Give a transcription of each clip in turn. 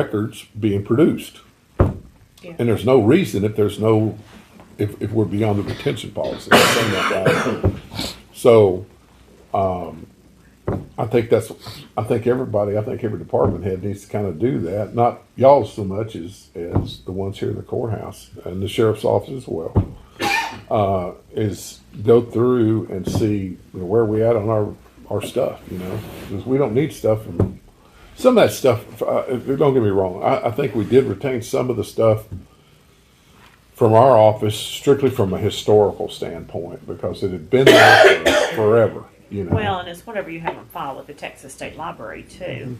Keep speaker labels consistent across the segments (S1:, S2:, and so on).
S1: records being produced.
S2: Yeah.
S1: And there's no reason if there's no, if, if we're beyond the retention policy. I'm saying that right. So, um, I think that's, I think everybody, I think every department head needs to kind of do that. Not y'all so much as, as the ones here in the courthouse and the sheriff's office as well. Uh, is go through and see you know, where we at on our, our stuff, you know? Because we don't need stuff from some of that stuff, uh, don't get me wrong, I, I think we did retain some of the stuff from our office strictly from a historical standpoint because it had been there for forever, you know.
S2: Well, and it's whatever you have on file with the Texas State Library too.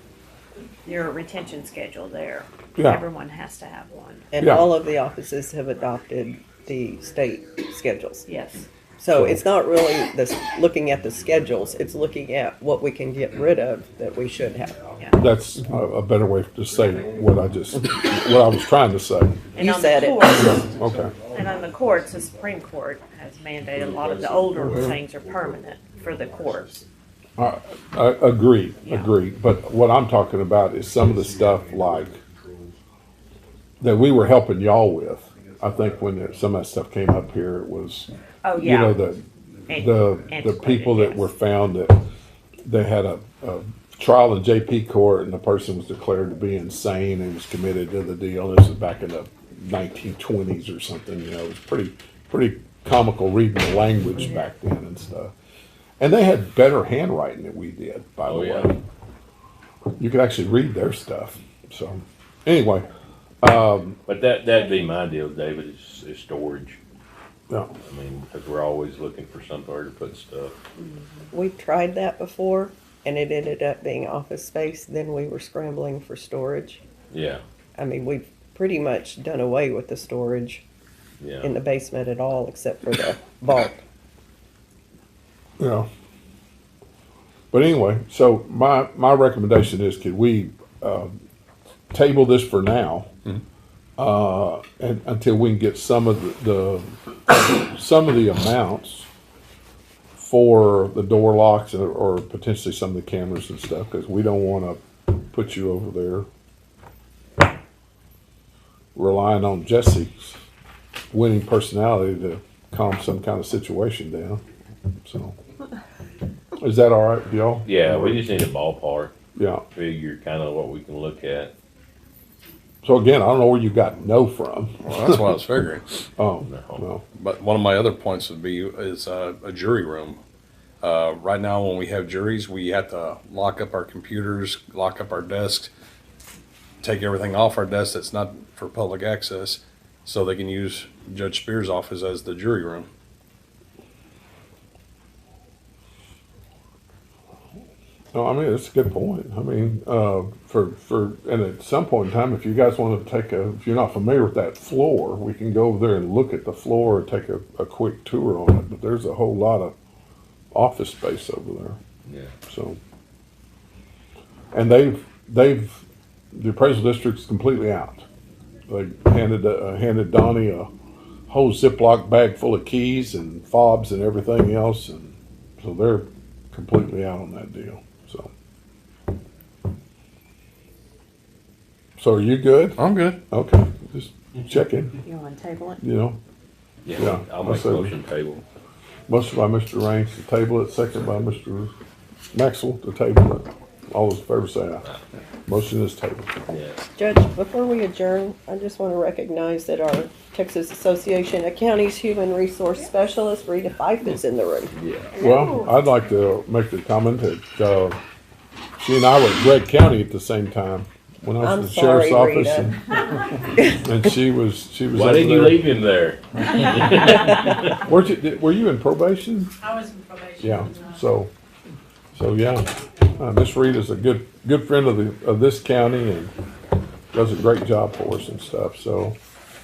S2: Your retention schedule there.
S1: Yeah.
S2: Everyone has to have one.
S3: And
S1: Yeah.
S3: all of the offices have adopted the state schedules.
S2: Yes.
S3: So it's not really this, looking at the schedules, it's looking at what we can get rid of that we should have.
S2: Yeah.
S1: That's a, a better way to say what I just, what I was trying to say.
S2: And
S3: You
S2: on the
S3: said it.
S2: courts-
S1: Okay.
S2: And on the courts, the Supreme Court has mandated a lot of the older things are permanent for the courts.
S1: I agree,
S2: Yeah.
S1: agree. But what I'm talking about is some of the stuff like that we were helping y'all with. I think when there- some of that stuff came up here, it was,
S2: Oh,
S1: you know,
S2: yeah.
S1: the,
S2: An-
S1: the, the
S2: antiquated,
S1: people that
S2: yes.
S1: were found that they had a, a trial in JP court and the person was declared to be insane and was committed to the deal. This was back in the 1920s or something, you know, it was pretty, pretty comical reading the language back then and stuff. And they had better handwriting than we did, by the
S4: Oh, yeah.
S1: way. You could actually read their stuff. So, anyway,
S4: But that, that'd be my deal, David, is, is storage.
S1: no,
S4: I mean, because we're always looking for somewhere to put stuff.
S3: We tried that before and it ended up being office space, then we were scrambling for storage.
S4: Yeah,
S3: I mean, we've pretty much done away with the storage in
S4: yeah.
S3: the basement at all, except for the vault.
S1: you know. But anyway, so my my recommendation is, could we uh, table this for now,
S4: Mm-hmm.
S1: uh, and until we can get some of the, the some of the amounts for the door locks or, or potentially some of the cameras and stuff, because we don't want to put you over there relying on Jesse's winning personality to calm some kind of situation down. So, is that all right with y'all?
S4: Yeah, we just need a ballpark
S1: Yeah.
S4: figure, kind of what we can look at.
S1: So again, I don't know where you got no from.
S5: Well, that's what I was figuring.
S1: Oh,
S4: No.
S1: no.
S5: But one of my other points would be is uh, a jury room. Uh, right now, when we have juries, we have to lock up our computers, lock up our desks, take everything off our desk that's not for public access, so they can use Judge Spears' office as the jury room.
S1: No, I mean, it's a good point. I mean, uh, for, for, and at some point in time, if you guys want to take a, if you're not familiar with that floor, we can go over there and look at the floor and take a, a quick tour on it. But there's a whole lot of office space over there.
S4: Yeah.
S1: So, and they've, they've, the appraisal district's completely out. They handed, uh, handed Donnie a whole Ziploc bag full of keys and fobs and everything else, and so they're completely out on that deal, so. So are you good?
S5: I'm good.
S1: Okay, just checking,
S2: You want to table it?
S1: you know, Yeah,
S4: Yeah, I'll make a
S1: so-
S4: motion table.
S1: motion by Mr. Raines to table it, second by Mr. Maxwell to table it. All those in favor say aye. Motion is tabled.
S4: Yeah.
S3: Judge, before we adjourn, I just want to recognize that our Texas Association of Counties Human Resource Specialist, Rita Fife, is in the room.
S4: Yeah.
S1: Well, I'd like to make the comment that uh, she and I were at Gregg County at the same time when I was
S3: I'm
S1: in the sheriff's
S3: sorry,
S1: office. and- And she was, she was.
S4: Why
S1: over
S4: didn't you
S1: there.
S4: leave him there?
S1: Weren't you, did- were you in probation?
S6: I was in probation.
S1: Yeah,
S6: and, uh,
S1: so, so yeah. Uh, Miss Reed is a good, good friend of the, of this county and does a great job for us and stuff, so.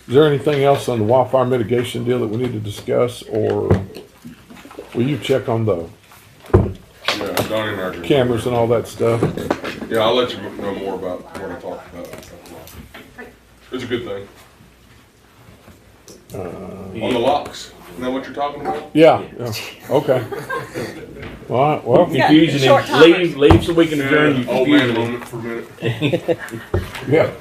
S1: Is there anything else on the wildfire mitigation deal that we need to discuss or will you check on the
S7: Yeah, Donnie and I agree.
S1: cameras and all that stuff?
S7: Yeah, I'll let you know more about what I talked about. It's a good thing. On the locks, isn't that what you're talking about?
S1: Yeah, yeah, okay. All right, well,
S2: Yeah,
S4: Confusing
S2: short
S4: him. Leave, leave so we can adjourn. you
S7: Old man
S4: confusing him.
S7: moment for a minute.
S1: Yeah.